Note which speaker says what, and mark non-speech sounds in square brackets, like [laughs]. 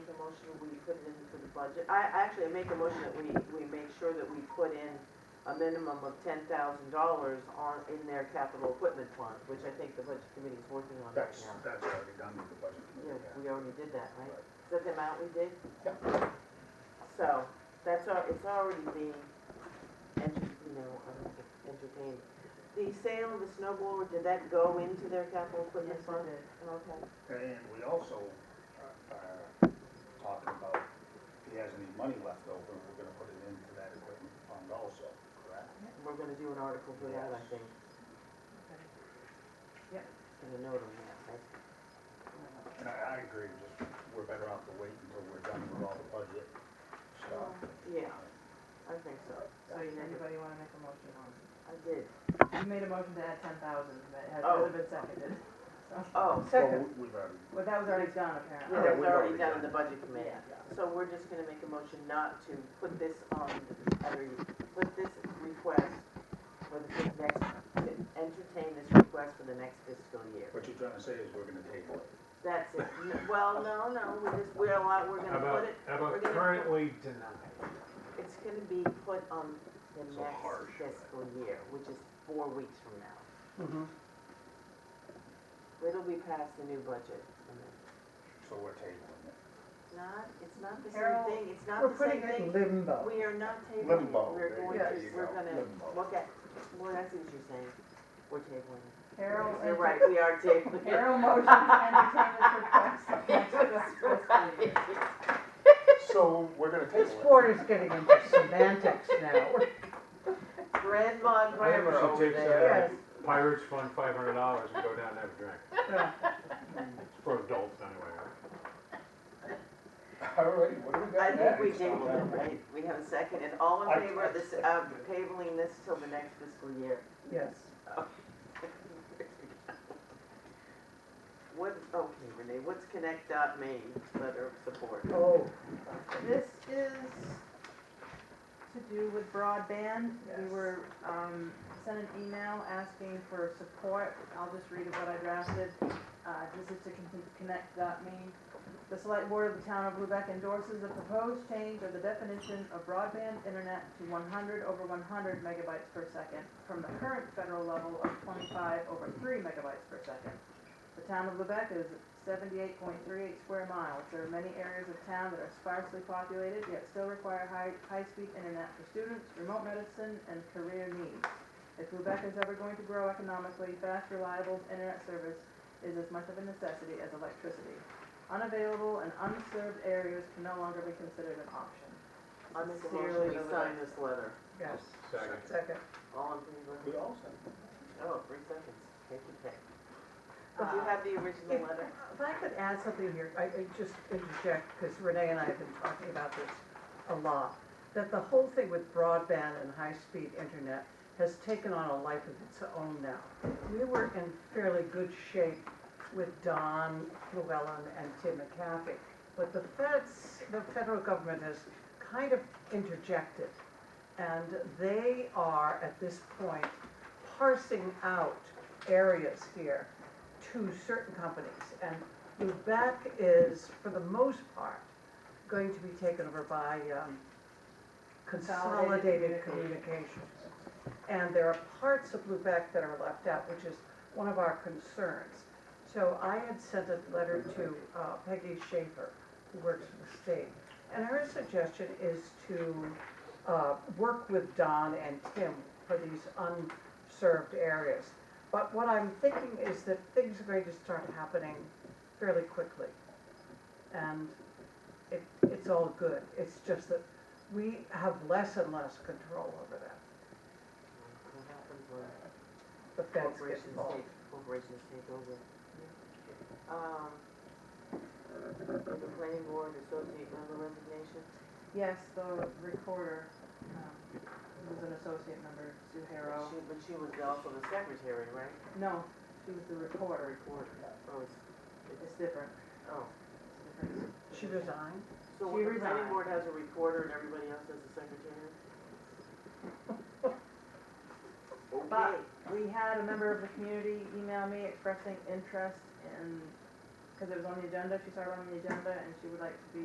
Speaker 1: should we put it into the budget? I, I actually make a motion that we, we make sure that we put in a minimum of ten thousand dollars on, in their capital equipment fund, which I think the budget committee is working on right
Speaker 2: That's,
Speaker 1: now.
Speaker 2: that's already done with the budget
Speaker 1: Yeah,
Speaker 2: committee, yeah.
Speaker 1: we already did that, right?
Speaker 2: Right.
Speaker 1: Is that the amount we did?
Speaker 2: Yep.
Speaker 1: So, that's al, it's already being, enter, you know, um, entertained. The sale of the snowblower, did that go into their capital equipment
Speaker 3: Yes,
Speaker 1: fund?
Speaker 3: it did.
Speaker 1: Okay.
Speaker 2: And we also uh, are talking about if he has any money left over, we're gonna put it into that equipment fund also, correct?
Speaker 1: We're gonna do an article for that, I think,
Speaker 3: Yep.
Speaker 1: and a note on that, right?
Speaker 2: And I, I agree, just, we're better off to wait until we're done with all the budget stuff.
Speaker 1: Yeah, I think so.
Speaker 3: So you, anybody wanna make a motion on?
Speaker 1: I did.
Speaker 3: You made a motion to add ten thousand, but it
Speaker 1: Oh.
Speaker 3: hasn't been seconded.
Speaker 1: Oh,
Speaker 2: Well, we- we've already,
Speaker 3: But that was already done
Speaker 1: yeah,
Speaker 2: Yeah,
Speaker 3: apparently.
Speaker 1: it
Speaker 2: we've
Speaker 1: was already
Speaker 2: already
Speaker 1: done in
Speaker 2: done
Speaker 1: the
Speaker 2: it.
Speaker 1: budget committee. So we're just gonna make a motion not to put this on, I mean, put this request for the next, entertain this request for the next fiscal year.
Speaker 2: what you're trying to say is we're gonna table it.
Speaker 1: That's it. N- Well, no, no, we just, we're, allowed- we're
Speaker 4: How
Speaker 1: gonna
Speaker 4: about,
Speaker 1: put it,
Speaker 4: how
Speaker 1: we're
Speaker 4: about
Speaker 1: gonna-
Speaker 4: currently denied?
Speaker 1: it's gonna be put on the
Speaker 2: So harsh.
Speaker 1: next fiscal year, which is four weeks from now. It'll be past the new budget. I mean,
Speaker 2: So we're tabling
Speaker 1: [laughs]
Speaker 2: it.
Speaker 1: Not, it's not the same
Speaker 3: Harold,
Speaker 1: thing, it's not
Speaker 5: We're
Speaker 1: the same
Speaker 5: putting it in
Speaker 1: thing.
Speaker 5: limbo.
Speaker 1: We are not tabling it,
Speaker 2: Limbo,
Speaker 1: we're
Speaker 2: there
Speaker 1: going to,
Speaker 2: you go,
Speaker 1: we're gonna
Speaker 2: limbo.
Speaker 1: look at, well, that's what you're saying, we're tabling it.
Speaker 3: Harold,
Speaker 1: You're right, we are tabling it.
Speaker 3: Harold motion
Speaker 1: [laughs]
Speaker 3: to entertain this [laughs] request of next fiscal year.
Speaker 2: So we're gonna
Speaker 5: This
Speaker 2: table it.
Speaker 5: board is getting into semantics now.
Speaker 1: Grandma and
Speaker 4: I think we
Speaker 1: grandma
Speaker 4: should
Speaker 1: over
Speaker 4: take
Speaker 1: there.
Speaker 5: Yes.
Speaker 4: that Pirates Fund five hundred dollars and go down and have a drink.
Speaker 5: Yeah.
Speaker 4: It's for adults anyway, right?
Speaker 2: All right, what do we
Speaker 1: I
Speaker 2: got
Speaker 1: think we
Speaker 2: next?
Speaker 1: tabled it, right, we have a second, and all in
Speaker 2: I-
Speaker 1: favor of this, of tabling this till the next fiscal year. [laughs]
Speaker 5: Yes.
Speaker 1: What, okay, Renee, what's Connect dot Maine letter of support?
Speaker 5: Oh,
Speaker 3: This is to do with broadband. We
Speaker 5: Yes.
Speaker 3: were, um, sent an email asking for support. I'll just read what I drafted. Uh, this is to con- connect dot me. The select board of the town of Lubec endorses the proposed change of the definition of broadband internet to one hundred over one hundred megabytes per second from the current federal level of twenty-five over three megabytes per second. The town of Lubec is seventy-eight point three eight square miles. There are many areas of town that are sparsely populated, yet still require high, high-speed internet for students, remote medicine, and career needs. If Lubec is ever going to grow economically, fast, reliable internet service is as much of a necessity as electricity. Unavailable and unserved areas can no longer be considered an option.
Speaker 1: I make a
Speaker 3: Sincerely,
Speaker 1: motion, we
Speaker 3: Lily.
Speaker 1: sign this letter.
Speaker 5: yes.
Speaker 4: Second.
Speaker 5: Second.
Speaker 1: All in favor?
Speaker 2: We all said.
Speaker 1: Oh, three seconds, take your pick. Do you have the [laughs] original
Speaker 5: If
Speaker 1: letter?
Speaker 5: if I could add something here, I I just interject, because Renee and I have been talking about this a lot, that the whole thing with broadband and high-speed internet has taken on a life of its own now. We were in fairly good shape with Don Llewellyn and Tim McCaffey, but the feds, the federal government has kind of interjected. And they are, at this point, parsing out areas here to certain companies. And Lubec is, for the most part, going to be taken over by um, Consolidated
Speaker 3: Consolidated
Speaker 5: Communications. And there are parts of Lubec that are left out, which is one of our concerns. So I had sent a letter to uh, Peggy Schaefer, who works for the state. And her suggestion is to uh, work with Don and Tim for these unserved areas. But what I'm thinking is that things are going to start happening fairly quickly. And it, it's all good. It's just that we have less and less control over that.
Speaker 1: What happens when
Speaker 5: The feds
Speaker 3: Oh.
Speaker 5: get
Speaker 1: corporations
Speaker 5: involved.
Speaker 1: take, corporations take over? Um, the planning board associate member resignation,
Speaker 3: Yes, the recorder, um, was an associate member, Sue Harrow.
Speaker 1: she, but she was also the secretary, right?
Speaker 3: No, she was the recorder.
Speaker 1: Recorder. Oh, it's,
Speaker 3: It's
Speaker 1: it's,
Speaker 3: different.
Speaker 1: oh.
Speaker 3: It's different.
Speaker 5: She resigned?
Speaker 1: So what,
Speaker 3: She
Speaker 1: the planning
Speaker 3: resigned.
Speaker 1: board has a recorder and everybody else has a secretary? Okay,
Speaker 3: [laughs] But- We had a member of the community email me expressing interest in, because it was on the agenda, she saw it on the agenda, and she would like to be